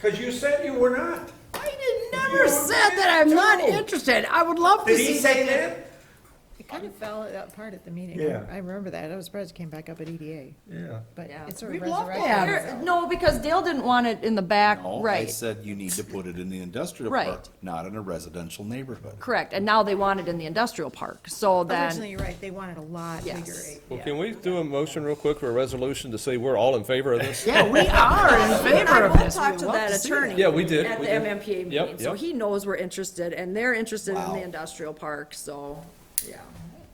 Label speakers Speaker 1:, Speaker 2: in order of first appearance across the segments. Speaker 1: Because you said you were not.
Speaker 2: I did- never said that I'm not interested. I would love to
Speaker 1: Did he
Speaker 2: see.
Speaker 1: say that?
Speaker 3: It kind of fell apart at the meeting.
Speaker 1: Yeah.
Speaker 3: I remember that. I was surprised it came back up at EDA,
Speaker 1: Yeah.
Speaker 3: but
Speaker 4: Yeah.
Speaker 3: it's sort
Speaker 2: We'd
Speaker 3: of
Speaker 2: love to
Speaker 3: resurrected.
Speaker 2: have it.
Speaker 4: Here- No, because Dale didn't want it in the back,
Speaker 5: No, I
Speaker 4: right,
Speaker 5: said you need to put it in the industrial
Speaker 4: Right.
Speaker 5: park, not in a residential neighborhood.
Speaker 4: correct, and now they want it in the industrial park, so
Speaker 3: Originally,
Speaker 4: then,
Speaker 3: you're right, they wanted a lot
Speaker 4: Yes.
Speaker 3: bigger. eh?
Speaker 6: Well, can we do a motion real quick for a resolution to say we're all in favor of this?
Speaker 2: Yeah, we are in favor of
Speaker 4: I will
Speaker 2: this.
Speaker 4: talk
Speaker 2: We
Speaker 4: to
Speaker 2: love
Speaker 4: that
Speaker 2: see that.
Speaker 4: attorney.
Speaker 6: Yeah, we did,
Speaker 4: At
Speaker 6: we
Speaker 4: the
Speaker 6: did.
Speaker 4: MMPA
Speaker 6: Yep,
Speaker 4: meeting, so
Speaker 6: yep.
Speaker 4: he knows we're interested, and they're interested in
Speaker 5: Wow.
Speaker 4: the industrial park, so, yeah.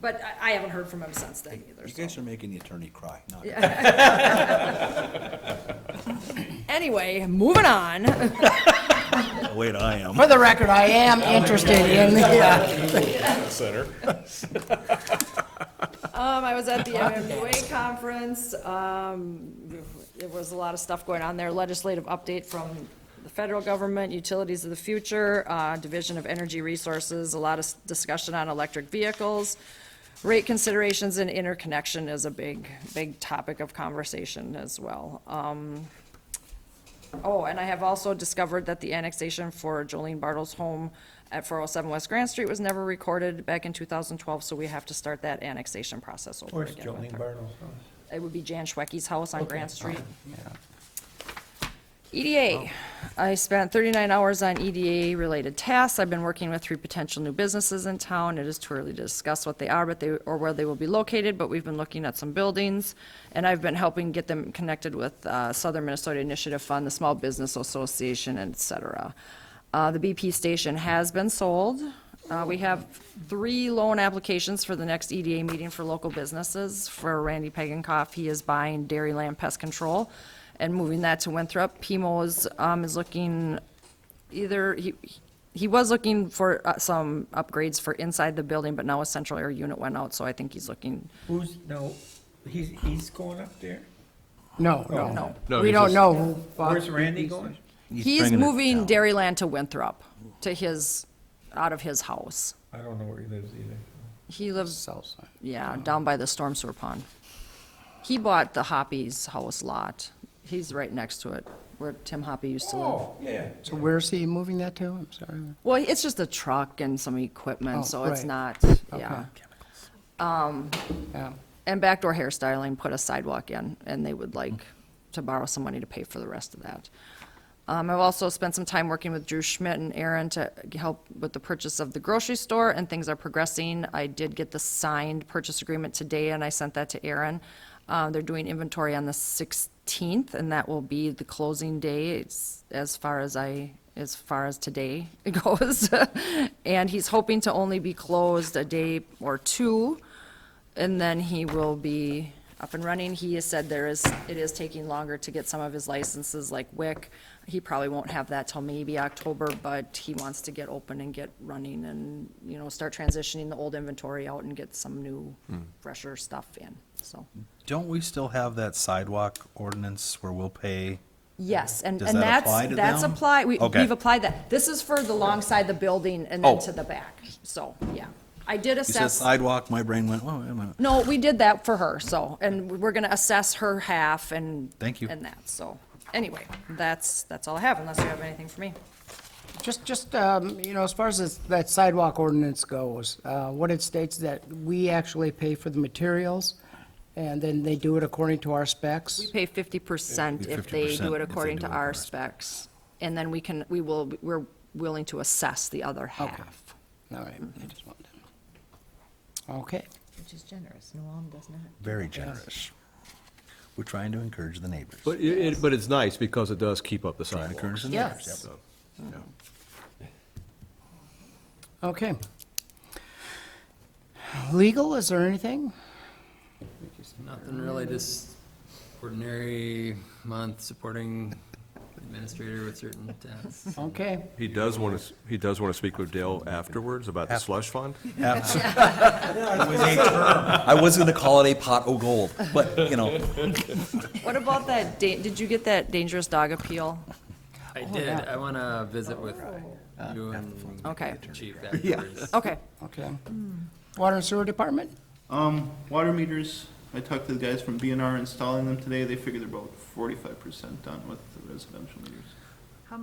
Speaker 4: But I, I haven't heard from him since then either,
Speaker 5: You
Speaker 4: so.
Speaker 5: guys are making the attorney cry. Not-
Speaker 4: Anyway, moving on.
Speaker 5: Wait, I am.
Speaker 2: For the record, I am interested in, uh, yeah.
Speaker 6: Center.
Speaker 4: Um, I was at the MMUA conference, um, there was a lot of stuff going on there, legislative update from the federal government, utilities of the future, uh, Division of Energy Resources, a lot of s- discussion on electric vehicles. Rate considerations and interconnection is a big, big topic of conversation as well. Um, Oh, and I have also discovered that the annexation for Jolene Bartle's home at 407 West Grand Street was never recorded back in 2012, so we have to start that annexation process over
Speaker 1: Where's
Speaker 4: again. with
Speaker 1: Jolene
Speaker 4: her.
Speaker 1: Bartles?
Speaker 4: It would be Jan Schwecky's house on Grand Street. EDA. I spent 39 hours on E EDA-related tasks. I've been working with three potential new businesses in town. It is too early to discuss what they are, but they, or where they will be located, but we've been looking at some buildings, and I've been helping get them connected with uh, Southern Minnesota Initiative Fund, the Small Business Association, et cetera. Uh, The BP station has been sold. Uh, We have three loan applications for the next EDA meeting for local businesses. For Randy Pagankoff, he is buying Dairyland Pest Control and moving that to Winthrop. Pimo's um, is looking either, he, he was looking for uh, some upgrades for inside the building, but now a central air unit went out, so I think he's looking,
Speaker 1: Who's, no, he's, he's going up there?
Speaker 2: No,
Speaker 4: no.
Speaker 2: no,
Speaker 6: No,
Speaker 2: we
Speaker 6: he's
Speaker 2: don't
Speaker 6: just-
Speaker 2: know. who bought
Speaker 1: Where's
Speaker 2: the
Speaker 1: Randy
Speaker 2: piece.
Speaker 1: going?
Speaker 4: He's
Speaker 5: bringing it
Speaker 4: moving
Speaker 5: down.
Speaker 4: Dairyland to Winthrop, to his, out of his house.
Speaker 1: I don't know where he lives either.
Speaker 4: He lives,
Speaker 2: South side.
Speaker 4: yeah, down by the storm sewer pond. He bought the Hoppy's house lot. He's right next to it, where Tim Hoppy used to live.
Speaker 1: Oh, yeah.
Speaker 2: So where's he moving that to? I'm sorry.
Speaker 4: Well, it's just a truck and some equipment,
Speaker 2: Oh,
Speaker 4: so it's
Speaker 2: right.
Speaker 4: not, yeah.
Speaker 2: Yeah.
Speaker 4: And backdoor hairstyling put a sidewalk in, and they would like to borrow some money to pay for the rest of that. Um, I've also spent some time working with Drew Schmidt and Aaron to help with the purchase of the grocery store, and things are progressing. I did get the signed purchase agreement today, and I sent that to Aaron. Uh, they're doing inventory on the sixteenth, and that will be the closing day, it's, as far as I, as far as today goes. And he's hoping to only be closed a day or two, and then he will be up and running. He has said there is, it is taking longer to get some of his licenses, like WIC. He probably won't have that till maybe October, but he wants to get open and get running and, you know, start transitioning the old inventory out and get some new,
Speaker 7: Hmm.
Speaker 4: fresher stuff in, so.
Speaker 7: Don't we still have that sidewalk ordinance where we'll pay?
Speaker 4: Yes, and,
Speaker 7: Does
Speaker 4: and
Speaker 7: that
Speaker 4: that's,
Speaker 7: apply to
Speaker 4: that's
Speaker 7: them?
Speaker 4: apply, we,
Speaker 7: Okay.
Speaker 4: we've applied that. This is for the long side the building and then
Speaker 7: Oh.
Speaker 4: to the back, so, yeah. I did
Speaker 5: You said
Speaker 4: assess.
Speaker 5: sidewalk, my brain went, whoa, wait a minute.
Speaker 4: No, we did that for her, so, and we're gonna assess her half and.
Speaker 7: Thank you.
Speaker 4: And that, so, anyway, that's, that's all I have, unless you have anything for me.
Speaker 2: Just, just, um, you know, as far as this- that sidewalk ordinance goes, uh, what it states that we actually pay for the materials, and then they do it according to our specs.
Speaker 4: Pay fifty percent if they
Speaker 7: 50%
Speaker 4: do
Speaker 7: if
Speaker 4: it
Speaker 7: they
Speaker 4: according
Speaker 7: do
Speaker 4: to
Speaker 7: it
Speaker 4: our
Speaker 7: according to
Speaker 4: specs, and then we can, we will, we're willing to assess the other half.
Speaker 2: All right, I just wanted to- Okay.
Speaker 3: Which is generous. Noam does not.
Speaker 7: Very generous. We're trying to encourage the neighbors.
Speaker 6: But it- it, but it's nice because it does keep up the
Speaker 7: Trying to encourage
Speaker 6: sidewalks.
Speaker 7: the neighbors.
Speaker 2: Yes.
Speaker 7: Yep.
Speaker 2: Okay. Legal, is there anything?
Speaker 8: Nothing really, just ordinary month supporting administrator with certain tasks.
Speaker 2: Okay.
Speaker 6: He does want to, he does want to speak with Dale afterwards about the slush fund?
Speaker 5: I was gonna call it a pot o' gold, but, you know,
Speaker 4: What about that, da- did you get that dangerous dog appeal?
Speaker 8: I did, I want to visit with you and
Speaker 4: Okay.
Speaker 8: the chief afterwards.
Speaker 4: Okay.
Speaker 2: Okay. Water and Sewer Department?
Speaker 9: Um, water meters, I talked to the guys from BNR installing them today, they figure they're about forty-five percent done with the residential meters.